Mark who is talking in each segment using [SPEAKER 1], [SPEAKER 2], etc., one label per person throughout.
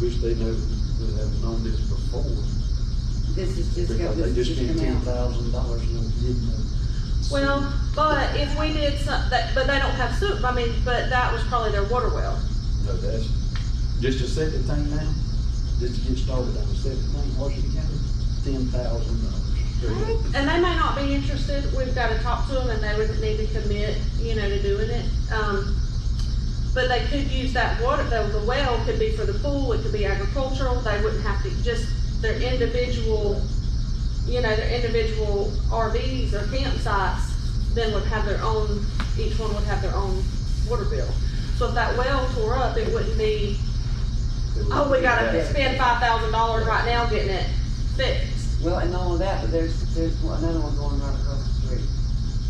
[SPEAKER 1] Wish they knew, would have known this before,
[SPEAKER 2] This is just
[SPEAKER 1] because
[SPEAKER 2] got
[SPEAKER 1] they
[SPEAKER 2] this
[SPEAKER 1] just
[SPEAKER 2] just
[SPEAKER 1] spent ten
[SPEAKER 2] come out.
[SPEAKER 1] thousand dollars and they didn't know.
[SPEAKER 3] Well, but if we did some, that, but they don't have soup, I mean, but that was probably their water well.
[SPEAKER 1] No, that's, just a second thing now, just to get started on the second thing, Washington County, ten thousand dollars.
[SPEAKER 3] And they may not be interested, we've gotta talk to them and they would need to commit, you know, to doing it. Um, but they could use that water, though, the well could be for the pool, it could be agricultural, they wouldn't have to, just their individual, you know, their individual RVs or campsites, then would have their own, each one would have their own water bill. So if that well tore up, it wouldn't be Oh, we gotta spend five thousand dollars right now getting it fixed,
[SPEAKER 2] Well, and all of that, but there's, there's one- another one going right across the street.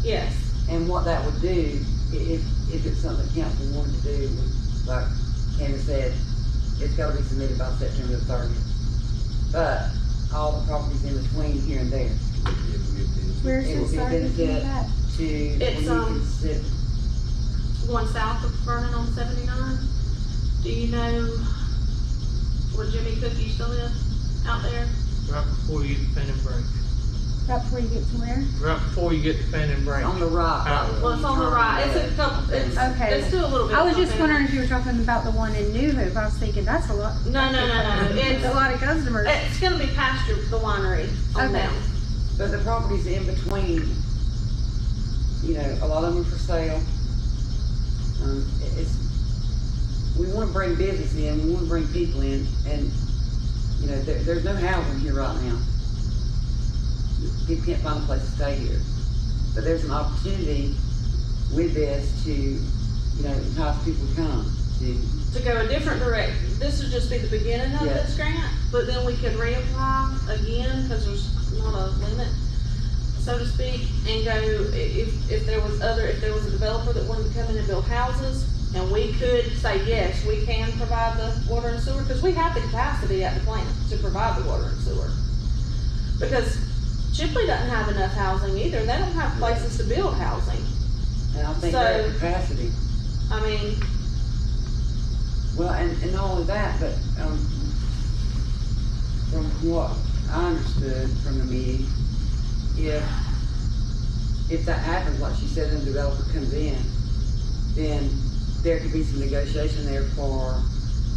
[SPEAKER 3] yes.
[SPEAKER 2] And what that would do, i- if, if it's something council wanted to do, would, like Candace said, it's gotta be submitted by September the thirtieth. But all the properties in between here and there
[SPEAKER 4] Where's
[SPEAKER 2] It
[SPEAKER 4] the
[SPEAKER 2] would be
[SPEAKER 4] service
[SPEAKER 2] benefit.
[SPEAKER 4] in that?
[SPEAKER 2] to, when
[SPEAKER 3] It's,
[SPEAKER 2] you
[SPEAKER 3] um,
[SPEAKER 2] consider,
[SPEAKER 3] Going south of Vernon on seventy-nine, do you know where Jimmy Cook used to live out there?
[SPEAKER 5] Right before you get the pen and break.
[SPEAKER 4] Right before you get to where?
[SPEAKER 5] Right before you get the pen and break.
[SPEAKER 2] on the right.
[SPEAKER 1] Uh,
[SPEAKER 5] Out.
[SPEAKER 2] right
[SPEAKER 3] Well, it's on the right, it's a couple, it's,
[SPEAKER 4] Okay.
[SPEAKER 3] it's still a little bit.
[SPEAKER 4] I was just
[SPEAKER 3] complicated.
[SPEAKER 4] wondering if you were talking about the one in New Hope. I was thinking, that's a lot,
[SPEAKER 3] No, no, no, no,
[SPEAKER 4] a
[SPEAKER 3] it's,
[SPEAKER 4] lot of customers.
[SPEAKER 3] it's gonna be past your, the winery on
[SPEAKER 4] Okay.
[SPEAKER 3] down.
[SPEAKER 2] But the properties in between, you know, a lot of them are for sale. Um, it- it's, we wanna bring business in, we wanna bring people in, and, you know, there, there's no housing here right now. People can't find a place to stay here. But there's an opportunity with this to, you know, entice people to come, to,
[SPEAKER 3] to go a different direction. This would just be the beginning of
[SPEAKER 2] Yeah.
[SPEAKER 3] this grant, but then we could reapply again, cause there's not a limit, so to speak, and go, i- if, if there was other, if there was a developer that wanted to come in and build houses, and we could say, yes, we can provide the water and sewer, cause we have the capacity at the plant to provide the water and sewer. Because Chipley doesn't have enough housing either, they don't have places to build housing,
[SPEAKER 2] and I think they're
[SPEAKER 3] So-
[SPEAKER 2] at capacity.
[SPEAKER 3] I mean,
[SPEAKER 2] Well, and, and not only that, but, um, from what I understood from the meeting, if, if that happens, like she said, and the developer comes in, then there could be some negotiation there for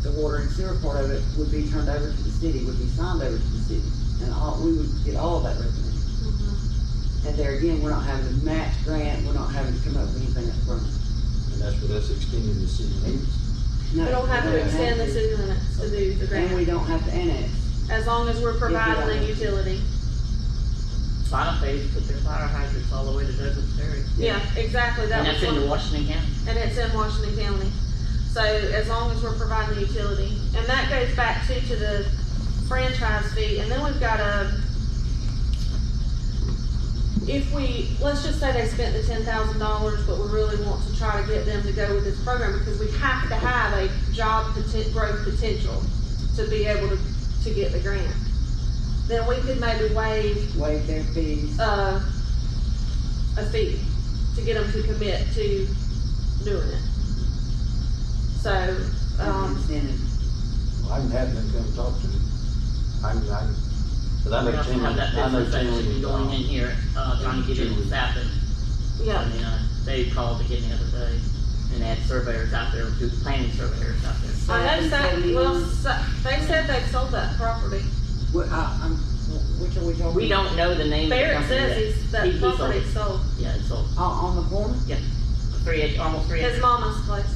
[SPEAKER 2] the water and sewer part of it would be turned over to the city, would be signed over to the city, and all, we would get all of that revenue. And there again, we're not having to match grant, we're not having to come up with anything upfront.
[SPEAKER 1] And that's what that's extending the city limits.
[SPEAKER 3] we don't have to extend the
[SPEAKER 2] this,
[SPEAKER 3] city limits to do the grant.
[SPEAKER 2] And we don't have to annex.
[SPEAKER 3] As long as we're providing a utility.
[SPEAKER 6] Final phase, put their fire hydrants all the way to Douglas Ferry.
[SPEAKER 3] Yeah, exactly, that
[SPEAKER 6] And that's
[SPEAKER 3] was
[SPEAKER 6] in
[SPEAKER 3] one,
[SPEAKER 6] Washington County.
[SPEAKER 3] and it's in Washington County. So as long as we're providing the utility, and that goes back to, to the franchise fee, and then we've got a, if we, let's just say they spent the ten thousand dollars, but we really want to try to get them to go with this program, because we have to have a job poten- growth potential to be able to, to get the grant. Then we could maybe waive
[SPEAKER 2] waive their fees.
[SPEAKER 3] uh, a fee to get them to commit to doing it. So,
[SPEAKER 6] Uh,
[SPEAKER 2] and
[SPEAKER 3] um,
[SPEAKER 2] incentive.
[SPEAKER 1] Well, I can have them come talk to me. I can, I can, cause I
[SPEAKER 6] We
[SPEAKER 1] know
[SPEAKER 6] also
[SPEAKER 1] Tim,
[SPEAKER 6] have that
[SPEAKER 1] I know
[SPEAKER 6] business
[SPEAKER 1] Tim.
[SPEAKER 6] actually
[SPEAKER 1] is,
[SPEAKER 6] going in
[SPEAKER 1] uh,
[SPEAKER 6] here, uh, trying to get in with Sappin.
[SPEAKER 3] yeah,
[SPEAKER 6] And, uh, they called again the other day and they had surveyors out there, do planning surveyors out there.
[SPEAKER 3] I know that,
[SPEAKER 2] Seventy
[SPEAKER 3] well,
[SPEAKER 2] one.
[SPEAKER 3] so- they said they sold that property.
[SPEAKER 2] What, I, I'm, which are we talking?
[SPEAKER 6] We don't know the name of the
[SPEAKER 3] Barrett
[SPEAKER 6] company
[SPEAKER 3] says
[SPEAKER 6] yet.
[SPEAKER 3] he's,
[SPEAKER 6] He-
[SPEAKER 3] that
[SPEAKER 6] he
[SPEAKER 3] property sold,
[SPEAKER 6] Yeah, it's sold.
[SPEAKER 2] On, on the corner,
[SPEAKER 6] Three, ac- almost three.
[SPEAKER 3] his
[SPEAKER 6] acres.
[SPEAKER 3] mama's place.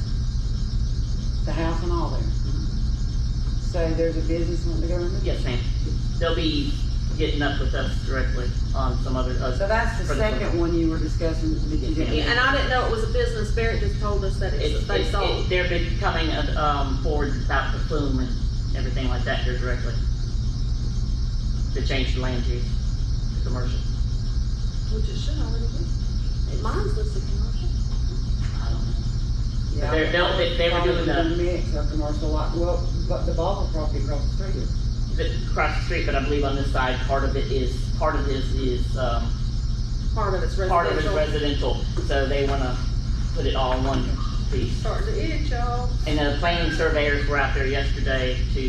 [SPEAKER 2] the house and all there.
[SPEAKER 6] Mm-hmm.
[SPEAKER 2] So there's a business wanting to go in there?
[SPEAKER 6] Yes, ma'am. They'll be getting up with us directly on some other, uh,
[SPEAKER 2] So that's the
[SPEAKER 6] For the
[SPEAKER 2] second
[SPEAKER 6] corner.
[SPEAKER 2] one you were discussing that you
[SPEAKER 6] Yeah.
[SPEAKER 3] Yeah,
[SPEAKER 2] didn't.
[SPEAKER 3] And I didn't know it was a business, Barrett just told us that
[SPEAKER 6] It's,
[SPEAKER 3] it's, they
[SPEAKER 6] it's, it-
[SPEAKER 3] sold.
[SPEAKER 6] they're becoming, uh, um, forward about the plume and everything like that here directly. To change the land use to commercial.
[SPEAKER 3] Which it should already be. Mine's listed commercial.
[SPEAKER 6] I don't know.
[SPEAKER 2] Yeah.
[SPEAKER 6] They're, they'll, they, they were
[SPEAKER 2] Probably
[SPEAKER 6] doing
[SPEAKER 2] in
[SPEAKER 6] the,
[SPEAKER 2] Mix of commercial lot, well, but the Bobble property across the street is.
[SPEAKER 6] the, across the street, but I believe on this side, part of it is, part of this is, um,
[SPEAKER 3] Part of it's
[SPEAKER 6] part of it's
[SPEAKER 3] residential.
[SPEAKER 6] residential, so they wanna put it all in one piece.
[SPEAKER 3] Starting to itch, y'all.
[SPEAKER 6] And the planning surveyors were out there yesterday to